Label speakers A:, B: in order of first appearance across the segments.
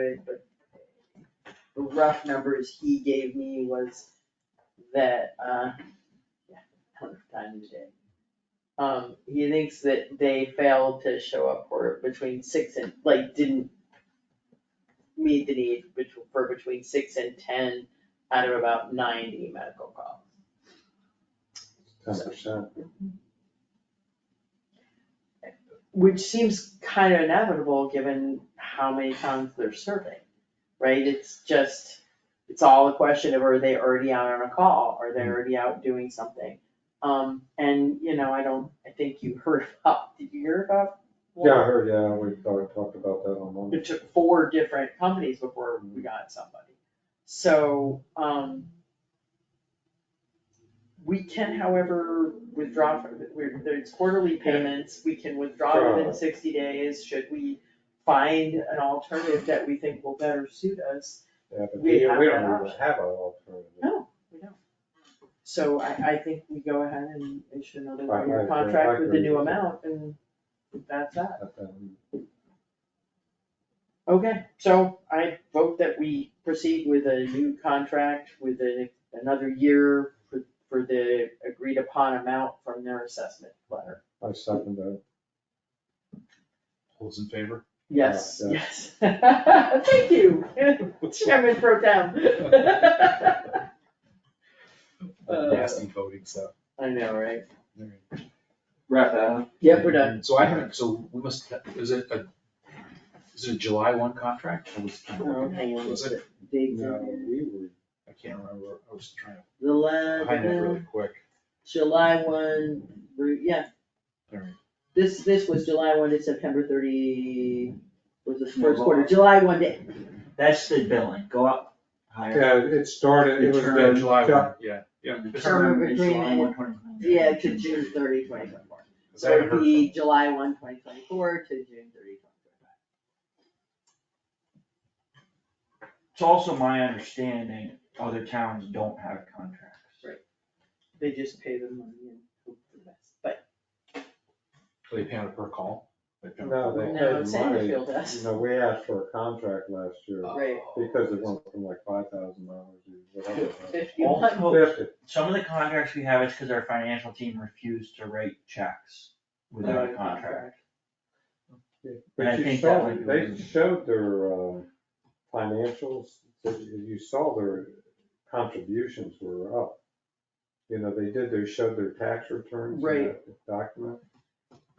A: good, but the rough numbers he gave me was that, uh, yeah, I don't have time today. Um, he thinks that they failed to show up for between six and, like, didn't meet the need bet- for between six and ten out of about ninety medical calls.
B: ten percent.
A: Which seems kind of inevitable, given how many towns they're serving, right? It's just, it's all a question of are they already out on a call, are they already out doing something? Um, and, you know, I don't, I think you heard about, did you hear about?
B: Yeah, I heard, yeah, we talked, talked about that on Monday.
A: It took four different companies before we got somebody. So, um. We can however withdraw from, we're, there's quarterly payments, we can withdraw within
B: Right.
A: sixty days, should we find an alternative that we think will better suit us?
B: Yeah, but
A: we
B: we, we
A: have
B: don't
A: that
B: even
A: option.
B: have an alternative.
A: No, we don't. So I, I think we go ahead and issue another
B: Right, I
A: one-year
B: agree, I
A: contract with the
B: agree
A: new
B: with you.
A: amount and that's that.
B: But then
A: Okay, so I vote that we proceed with a new contract with a, another year for, for the agreed upon amount from their assessment letter.
B: I second that.
C: All those in favor?
A: Yes,
B: Yeah,
A: yes. Thank you, Chairman Pro Tem. Uh,
C: Nasty voting stuff.
A: I know, right?
D: Wrap that up.
A: Yep, we're done.
C: So I haven't, so we must, is it a, is it a July one contract? I was, I
A: Oh, hang on.
C: Was it-
A: Dig
B: No,
A: in.
B: we were,
C: can't remember, I was trying to
A: The
C: find it really
A: letter,
C: quick.
A: July one, re- yeah,
C: All right.
A: This, this was July one to September thirty, was the
D: No,
A: first quarter,
D: July.
A: July one to,
D: That's the billing, go up higher.
B: yeah, it started, it was
D: Return
B: the.
C: July
B: yeah,
C: one, yeah, yeah.
D: And the
C: Because
A: Term of
D: term is July
A: agreement.
D: 1, 2025.
A: yeah, to June 30, 2024.
C: I
A: So
C: haven't
A: it'd
C: heard
A: be
C: from-
A: July 1, 2024 to June 30, 2025.
D: It's also my understanding, other towns don't have contracts.
A: They just pay the money and hope for the best, but
C: Are they paying it per call? They pay on a
B: No,
C: per
B: they
C: call?
B: paid
A: no,
B: money.
A: Sandfield does.
B: You know, we asked for a contract last year
C: Uh,
A: Right.
B: because it went from like five thousand dollars to whatever. it was.
A: Fifty-one,
D: Also,
B: Fifty,
D: some of the contracts we have is because our financial team refused to write checks without a
A: Without a
D: contract. I
B: but you
D: think that
B: saw,
D: might be
B: they
D: one.
B: showed their, uh, financials, so you you saw their contributions were up. You know, they did, they showed their tax returns in
A: Right.
B: that document.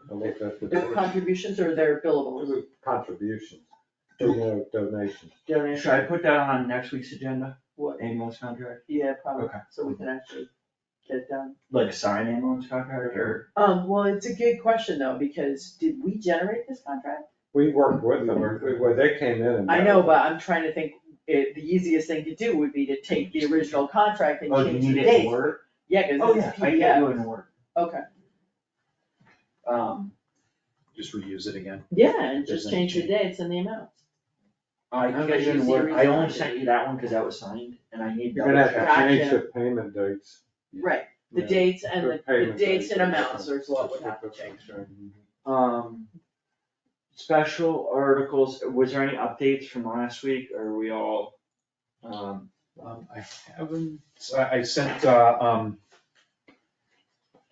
B: I looked at
A: their
B: the
A: contributions or their billables,
B: contributions, you know, donations.
A: donations,
D: Should I put that on next week's agenda,
A: what,
D: ambulance contract,
A: yeah, probably,
D: Okay.
A: so we can actually get it done.
D: like sign ambulance contract or?
A: Um, well, it's a good question though, because did we generate this contract?
B: We worked with them, where they came in and.
A: I know, but I'm trying to think, it, the easiest thing to do would be to take the original contract and
D: Oh, do you
A: change the
D: need
A: date.
D: it in Word?
A: Yeah, cause
D: Oh,
A: it's
D: yeah, I can
A: PDF,
D: do it in Word.
A: okay,
D: Um,
C: Just reuse it again.
A: yeah, and
C: There's
A: just
C: any
A: change the
C: change.
A: dates and the amounts.
D: I
A: How
D: think I
A: much
D: did
A: is
D: in
A: the
D: Word, I only
A: original?
D: sent you that one because that was signed and I need
B: You're
D: double
B: gonna
D: check.
B: have to change the payment dates.
A: Right, the
B: Yeah.
A: dates and the, the
B: Payment
A: dates and
B: dates.
A: amounts is what would have to change.
D: Um, special articles, was there any updates from last week, or are we all, um,
C: Um, I haven't, so I, I sent, uh, um,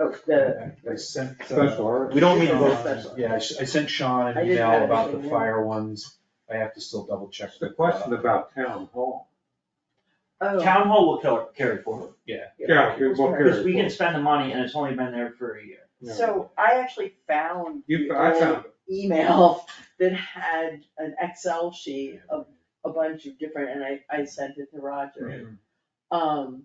A: Oh, the,
C: I I sent. uh,
B: Special articles.
C: We don't
A: need
C: need
A: to vote
C: both,
A: on this.
C: yeah, I sh- I sent Sean
A: I
C: an
A: didn't have
C: email about
A: anything
C: the
A: more.
C: fire ones, I have to still double check.
B: The
C: with,
B: question
C: uh,
B: about town hall.
A: oh,
D: town hall will kill- carry forward,
B: Yeah, it will carry
D: because we can
B: forward.
D: spend the money and it's only been there for a year.
B: Yeah.
A: so I actually found
B: You,
A: the
B: I
A: old
B: found,
A: email that had an Excel sheet of a bunch of different, and I, I sent it to Roger. Um,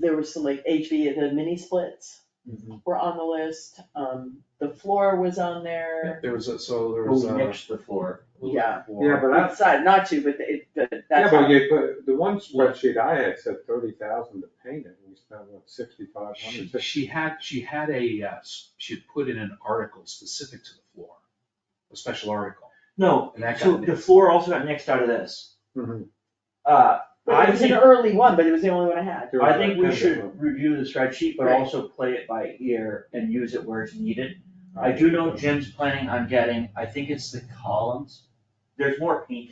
A: there was some like HV, the mini splits
C: Mhm.
A: were on the list, um, the floor was on there.
C: There was a, so there was uh,
D: We'll
C: a.
D: mix the floor.
A: Yeah.
B: Oh, yeah, but I,
A: Outside, not to, but it, but
B: yeah,
A: that's,
B: but
A: how-
B: you, but the one spreadsheet I had said thirty thousand to paint it, we spent what, sixty-five
C: She,
B: hundred?
C: she had, she had a, uh, s- she had put in an article specific to the floor, a special article,
D: No,
C: and that
D: so
C: got
D: the
C: mixed.
D: floor also got nixed out of this.
B: Mhm.
D: Uh,
A: but
D: I
A: it was an
D: think,
A: early one, but it was the only one I had.
B: There was
D: I think we
B: that
D: should review the spreadsheet, but
A: Right.
D: also play it by ear and use it where it's needed.
B: kind of-
D: I do know Jim's planning on getting, I think it's the columns there's more paint